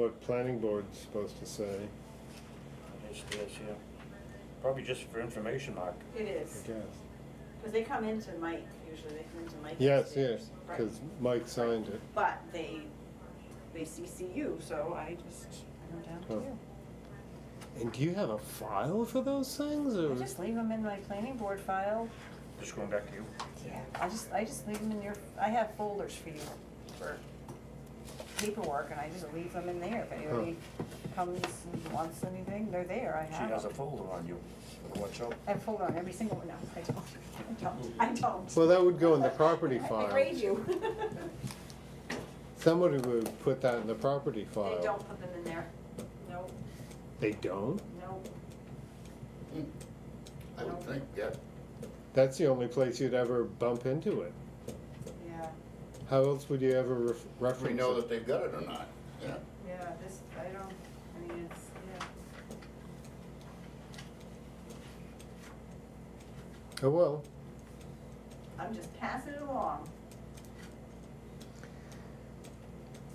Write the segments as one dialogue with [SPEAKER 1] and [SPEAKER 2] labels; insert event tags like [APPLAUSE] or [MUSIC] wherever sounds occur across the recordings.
[SPEAKER 1] what planning board's supposed to say,
[SPEAKER 2] Yes, it is, yeah. Probably just for information, Mark.
[SPEAKER 3] It
[SPEAKER 1] I
[SPEAKER 3] is,
[SPEAKER 1] guess.
[SPEAKER 3] because they come into Mike, usually they come into Mike.
[SPEAKER 1] Yes, yes,
[SPEAKER 3] Right.
[SPEAKER 1] because Mike signed it.
[SPEAKER 3] But they, they CC you, so I just, I'm down
[SPEAKER 1] Huh.
[SPEAKER 3] to
[SPEAKER 1] And do you have a file for those things,
[SPEAKER 3] you. I
[SPEAKER 1] or?
[SPEAKER 3] just leave them in my planning board file.
[SPEAKER 2] Just going back to you.
[SPEAKER 3] Yeah. I just, I just leave them in your, I have folders for you for paperwork, and I just leave them in there. If anybody comes and wants anything, they're there, I
[SPEAKER 2] She
[SPEAKER 3] have them.
[SPEAKER 2] has a folder on you. Watch out.
[SPEAKER 3] I have folder on every single one, no, I don't, [LAUGHS] I don't, I don't.
[SPEAKER 1] Well, that would go in the property
[SPEAKER 3] [LAUGHS] I grade
[SPEAKER 1] file.
[SPEAKER 3] you. [LAUGHS]
[SPEAKER 1] Somebody would put that in the property file.
[SPEAKER 3] They don't put them in there. No,
[SPEAKER 1] They don't?
[SPEAKER 3] no.
[SPEAKER 4] mm, I would think, yeah.
[SPEAKER 1] That's the only place you'd ever bump into it.
[SPEAKER 3] Yeah,
[SPEAKER 1] How else would you ever ref-
[SPEAKER 4] If we
[SPEAKER 1] reference
[SPEAKER 4] know
[SPEAKER 1] it?
[SPEAKER 4] that they've got it or not, yeah.
[SPEAKER 3] yeah, this, I don't, I mean, it's, yeah.
[SPEAKER 1] Oh, well,
[SPEAKER 3] I'm just passing it along.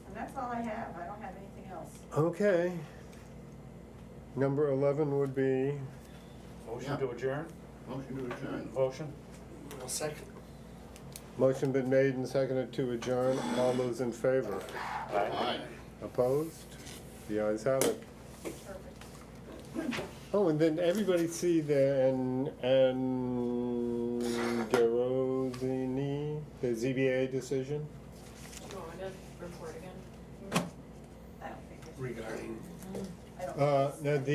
[SPEAKER 3] And that's all I have, I don't have anything else.
[SPEAKER 1] okay. Number eleven would be,
[SPEAKER 2] Motion to adjourn?
[SPEAKER 4] Motion to adjourn.
[SPEAKER 2] Motion?
[SPEAKER 1] motion been made and seconded to adjourn. All those in favor?
[SPEAKER 4] Aye.
[SPEAKER 1] Opposed? The ayes have it.
[SPEAKER 3] Perfect.
[SPEAKER 1] Oh, and then everybody see the, and, and DeRozini, the ZBA decision?
[SPEAKER 5] Do you want me to report again?
[SPEAKER 3] I don't think,
[SPEAKER 6] regarding
[SPEAKER 3] I don't.
[SPEAKER 1] Uh, no, the